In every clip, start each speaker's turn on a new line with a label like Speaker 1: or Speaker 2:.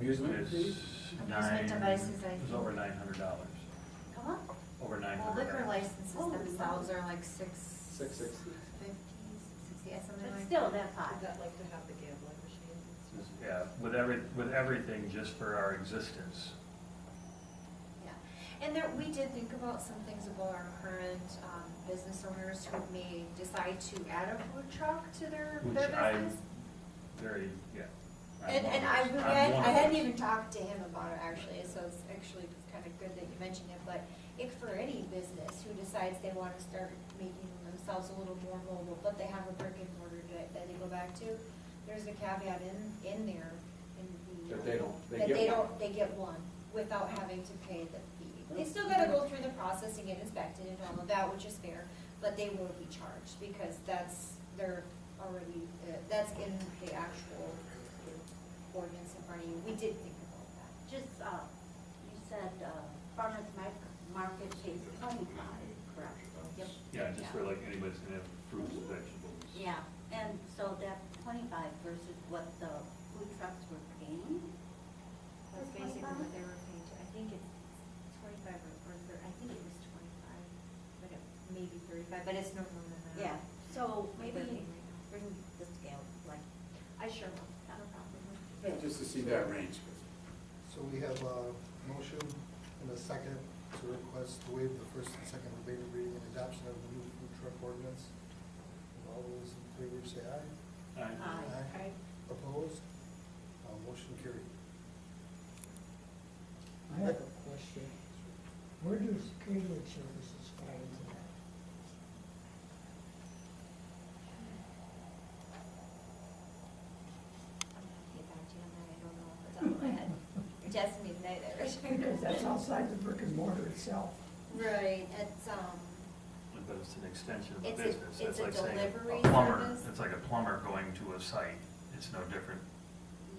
Speaker 1: Amusement fee?
Speaker 2: Amusement devices, I
Speaker 3: It was
Speaker 2: think.
Speaker 3: over nine hundred dollars,
Speaker 2: Come
Speaker 4: Uh-huh.
Speaker 2: on.
Speaker 3: over nine
Speaker 2: Well,
Speaker 3: hundred.
Speaker 2: liquor licenses
Speaker 4: Oh.
Speaker 2: themselves are like six.
Speaker 1: Six sixty.
Speaker 2: Fifty, six sixty, yeah, something
Speaker 4: But
Speaker 2: like.
Speaker 4: still, that's high.
Speaker 5: Is that like to have the gambling machine?
Speaker 3: Yeah, with every, with everything just for our existence.
Speaker 2: Yeah, and there, we did think about some things about our current, um, business owners who may decide to add a food truck to their,
Speaker 3: Which
Speaker 2: their
Speaker 3: I-
Speaker 2: business.
Speaker 3: Very, yeah. I'm
Speaker 2: And,
Speaker 3: one
Speaker 2: and
Speaker 3: of
Speaker 2: I,
Speaker 3: those.
Speaker 2: we
Speaker 3: I'm
Speaker 2: had-
Speaker 3: one
Speaker 2: I
Speaker 3: of
Speaker 2: hadn't
Speaker 3: those.
Speaker 2: even talked to him about it actually, so it's actually kind of good that you mentioned it, but if for any business who decides they want to start making themselves a little more mobile, but they have a brick and mortar that, that they go back to, there's a caveat in, in there in the.
Speaker 1: That they don't- they
Speaker 2: that
Speaker 1: get
Speaker 2: they
Speaker 1: one.
Speaker 2: don't- they get one without having to pay the fee. They still gotta go through the process and get inspected and all of that, which is fair, but they will be charged because that's, they're already, uh, that's in the actual ordinance in front of you. We did think about that.
Speaker 4: Just, uh, you said, uh, farmer's mar- market pays county potted, correct? Yep.
Speaker 3: Yeah, just for like anybody's gonna have fruits and vegetables.
Speaker 4: Yeah, and so that twenty-five versus what the food trucks were paying?
Speaker 2: That's basically what they were paying to, I think it's twenty-five or, or, thir- I think it was twenty-five, but it may be thirty-five, but it's no more than that.
Speaker 4: Yeah, so
Speaker 2: What
Speaker 4: maybe
Speaker 2: they're paying right now.
Speaker 4: bring the scale, like,
Speaker 2: I sure will, not a problem.
Speaker 1: Yeah, just to see that range.
Speaker 6: So we have a motion and a second to request to waive the first and second related reading and adoption of the new food truck ordinance. And All those in favor say aye.
Speaker 3: Alright.
Speaker 4: Aye.
Speaker 6: Opposed? Uh, Motion carried.
Speaker 7: I have a question. Where do catering services fall into that?
Speaker 2: I'm gonna get back to you on that, I don't know off the top of my head. Jasmine neither.
Speaker 7: Because that's outside the brick and mortar itself.
Speaker 2: Right, it's, um,
Speaker 3: But it's an extension of a
Speaker 2: It's a-
Speaker 3: business. That's
Speaker 2: it's a
Speaker 3: like saying
Speaker 2: delivery
Speaker 3: plumber.
Speaker 2: service.
Speaker 3: It's like a plumber going to a site. It's no different.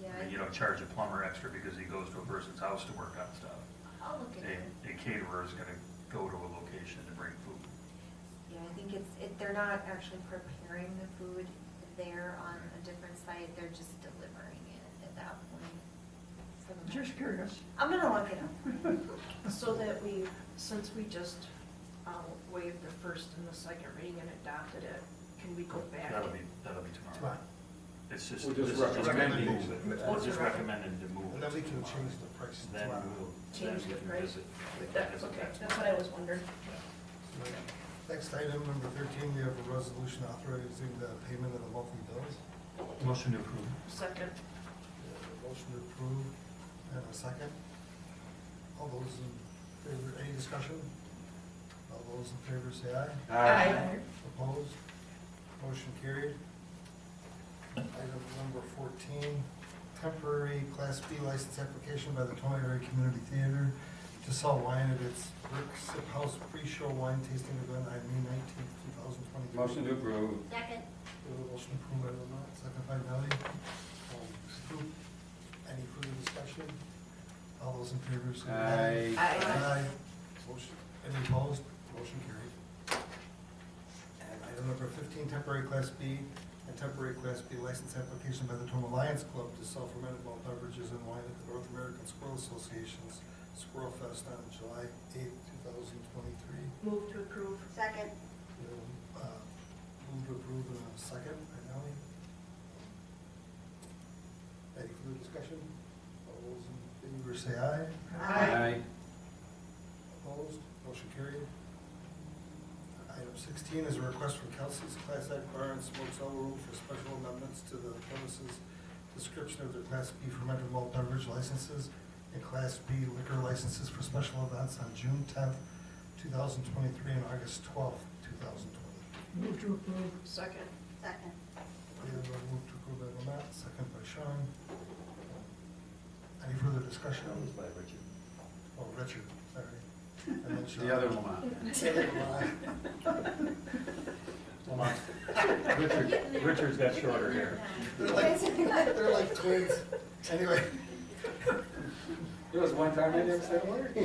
Speaker 2: yeah.
Speaker 3: I mean, you don't charge a plumber extra because he goes to a person's house to work on stuff.
Speaker 2: I'll look at it.
Speaker 3: A a caterer is gonna go to a location to bring food.
Speaker 2: Yeah, I think it's, it, they're not actually preparing the food there on a different site, they're just delivering it at that point. for the
Speaker 7: Just
Speaker 2: moment.
Speaker 7: curious.
Speaker 2: I'm gonna look it up.
Speaker 8: So that we, since we just um, waived the first and the second reading and adopted it, can we go back?
Speaker 3: That'll be, that'll be tomorrow.
Speaker 6: Fine.
Speaker 3: It's just,
Speaker 1: We're
Speaker 3: this
Speaker 1: just
Speaker 3: is just recommended to
Speaker 6: recommending.
Speaker 3: move it. We're just recommended to move it.
Speaker 6: And then we can
Speaker 3: tomorrow.
Speaker 6: change the price
Speaker 3: Then
Speaker 6: tomorrow.
Speaker 3: we'll, then
Speaker 8: Change
Speaker 3: we
Speaker 8: the
Speaker 3: can
Speaker 8: price?
Speaker 3: visit.
Speaker 8: That- Okay, that's what I was wondering.
Speaker 6: Next item, number thirteen, we have a resolution authorizing the payment of the monthly bills.
Speaker 3: Motion to approve.
Speaker 8: Second.
Speaker 6: We have a Motion to approve and a second. All those in favor, any discussion? All those in favor say aye.
Speaker 8: Aye.
Speaker 6: Opposed? Motion carried. Item number fourteen, temporary Class B license application by the Tony Area Community Theater to sell wine at its Brick Sip House pre-show wine tasting event on May nineteenth, two thousand twenty-three.
Speaker 1: Motion to approve.
Speaker 4: second,
Speaker 6: Motion approved by Lamont, second by Nelly. Um, approved. Any further discussion? All those in favor say aye.
Speaker 8: Aye.
Speaker 6: Aye. Motion, any opposed? Motion carried. And item number fifteen, temporary class B and temporary class B license application by the Tom Alliance Club to sell fermented malt beverages and wine at the North American Squirrel Association's Squirrel Fest on July eighth, two thousand twenty-three.
Speaker 8: Move to approve.
Speaker 4: second,
Speaker 6: uh, Move to approve in a second, by Nelly. Any further discussion? All those in favor say aye.
Speaker 1: Aye.
Speaker 6: Opposed, motion carried. Item sixteen is a request from Kelsey's Class Act Bar and Smoke Cell Room for special amendments to the premises description of their Class B fermented malt beverage licenses and Class B liquor licenses for special events on June tenth, two thousand twenty-three, and August twelfth, two thousand twenty-three.
Speaker 7: Move to approve.
Speaker 8: Second.
Speaker 4: second,
Speaker 6: We have a move to approve by Lamont, second by Sean. Any further discussion?
Speaker 3: by Richard.
Speaker 6: Oh, Richard, sorry. I meant Sean.
Speaker 1: The other Lamont.
Speaker 3: Richard, Richard's got shorter hair.
Speaker 6: They're like, they're like twins. Anyway.
Speaker 1: There was one time I didn't say a word.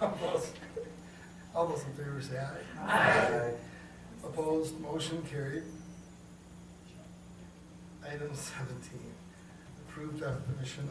Speaker 6: All those- all those in favor say aye. Opposed, motion carried. Item seventeen, approved definition